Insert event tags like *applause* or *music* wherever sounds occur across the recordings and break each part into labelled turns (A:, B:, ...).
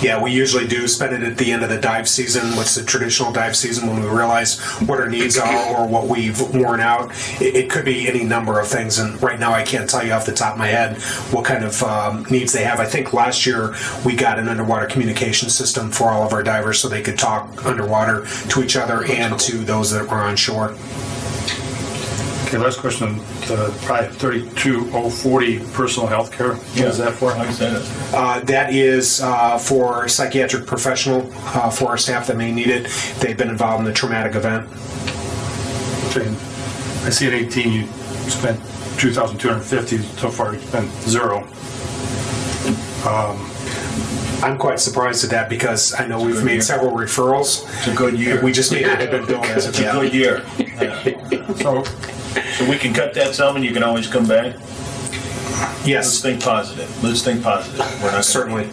A: Yeah, we usually do spend it at the end of the dive season. What's the traditional dive season when we realize what our needs are or what we've worn out? It, it could be any number of things. And right now, I can't tell you off the top of my head what kind of um, needs they have. I think last year we got an underwater communication system for all of our divers so they could talk underwater to each other and to those that were on shore.
B: Okay, last question, uh, probably 32040, personal health care. What is that for?
C: Like I said,
A: Uh, that is uh, for psychiatric professional uh, for our staff that may need it. They've been involved in the traumatic event.
B: Okay. I see at 18, you spent 2,250, so far you spent zero.
A: I'm quite surprised at that because I know we've made several referrals.
C: it's a good year.
A: We just made it have been built as
C: It's
A: of
C: a
A: yet.
C: good year. Uh,
B: So,
C: So we can cut that sum and you can always come back. Let's
A: Yes,
C: think positive. Let's think positive. We're not gonna-
A: certainly.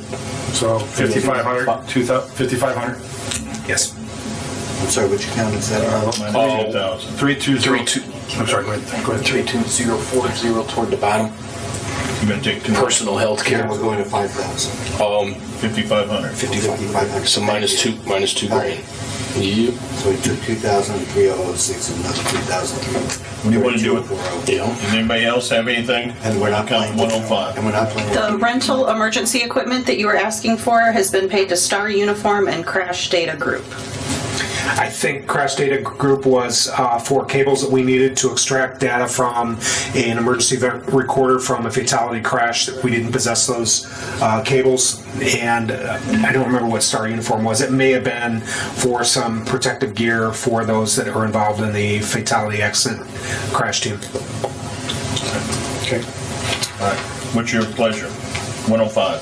B: so 5,500, 2,000 5,500?
A: Yes.
D: I'm sorry, which account is that?
C: My
D: Uh,
C: budget, 1,000.
B: 320.
E: 32.
B: I'm sorry, go ahead, go ahead.
D: 32040 toward the bottom.
C: You're gonna take two,
E: Personal health
D: Here
E: care,
D: we're going to 5,000.
E: um,
C: 5,500.
D: 5,500.
E: so minus two, minus two grand. You,
D: So we took 2,3006 and another 2,003.
C: What do you wanna do with-
D: 3240.
E: you know,
C: Does anybody else have anything?
D: oh.
C: oh
D: And we're not
C: Account
D: playing. with-
C: 105.
D: And we're not playing.
F: The
D: with-
F: rental emergency equipment that you were asking for has been paid to Star Uniform and Crash Data Group.
A: I think Crash Data Group was uh, for cables that we needed to extract data from an emergency event recorder from a fatality crash. that We didn't possess those uh, cables, and uh, I don't remember what Star Uniform was. It may have been for some protective gear for those that are involved in the fatality accident crash team.
B: Okay.
C: All right. What's your pleasure? 105.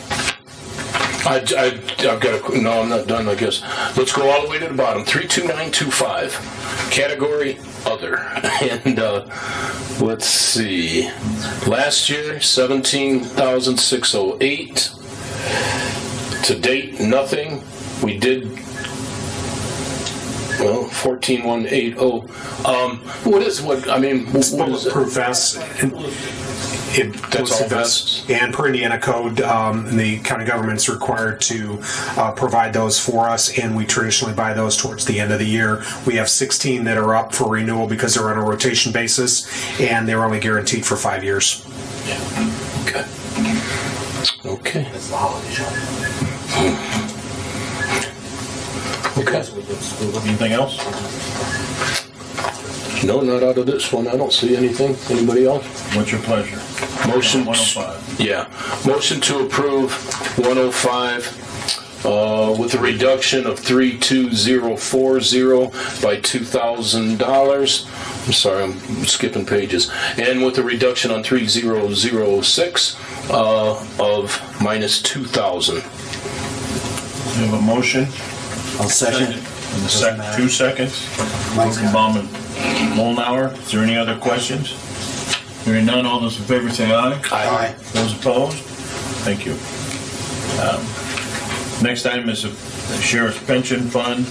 E: I, I, I've got a, qu- no, I'm not done, I guess. Let's go all the way to the bottom, 32925, category other. *laughs* And, uh, let's see, last year, 17,608. To date, nothing. We did, well, 14,180. Um, what is, what, I mean, what is it?
A: Bulletproof vests. and- it-
E: That's all
A: bulletproof vests.
E: vests?
A: And per Indiana code, um, the county government's required to uh, provide those for us, and we traditionally buy those towards the end of the year. We have 16 that are up for renewal because they're on a rotation basis, and they're only guaranteed for five years.
E: Okay. Okay,
D: It's the holiday shop.
E: okay.
C: Anything else?
E: No, not out of this one. I don't see anything. Anybody else?
C: What's your pleasure?
E: Motion.
C: 105.
E: Yeah, motion to approve 105 uh, with a reduction of 32040 by $2,000. I'm sorry, I'm skipping pages. And with a reduction on 3006 uh, of minus 2,000.
C: We have a motion.
D: I'll
C: Second.
D: second.
C: And the sec, two seconds. Rosenbaum and Molnauer. Is there any other questions? Hearing none, all those in favor say aye.
D: Aye.
C: Those opposed? Thank you. Um, Next item is the Sheriff's Pension Fund,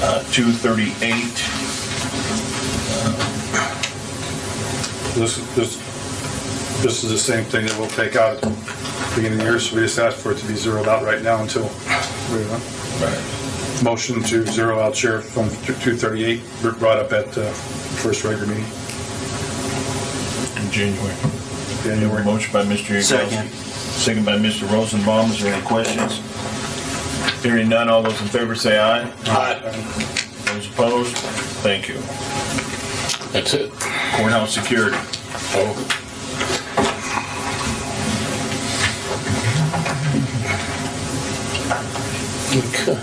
C: uh, 238.
B: This, this, this is the same thing that we'll take out at the beginning of the year, so we just asked for it to be zeroed out right now until, we, uh, motion to zero out sheriff from 238, brought up at uh, first regular meeting.
C: In January.
B: January.
C: Motion by Mr. Yagowski.
D: Second.
C: Second by Mr. Rosenbaum. Is there any questions? Hearing none, all those in favor say aye.
E: Aye.
C: Those opposed? Thank you.
E: That's it.
C: Courthouse security.
E: Oh, Okay.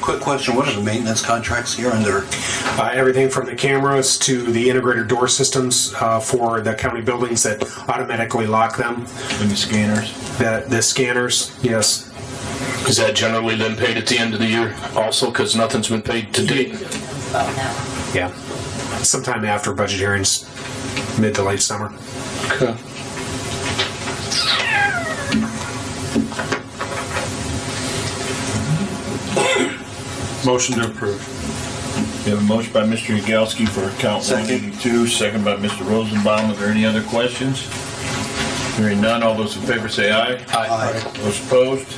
D: Quick question, what are the maintenance contracts here under?
A: Uh, everything from the cameras to the integrated door systems uh, for the county buildings that automatically lock them,
C: Any scanners?
A: the, the scanners, yes.
E: Is that generally then paid at the end of the year also, because nothing's been paid to date?
A: Yeah. Sometime after budget hearings, mid to late summer.
E: Okay.
B: Motion to approve.
C: We have a motion by Mr. Yagowski for account
D: Second.
C: 182, second by Mr. Rosenbaum. Are there any other questions? Hearing none, all those in favor say aye.
D: Aye.
C: Those opposed?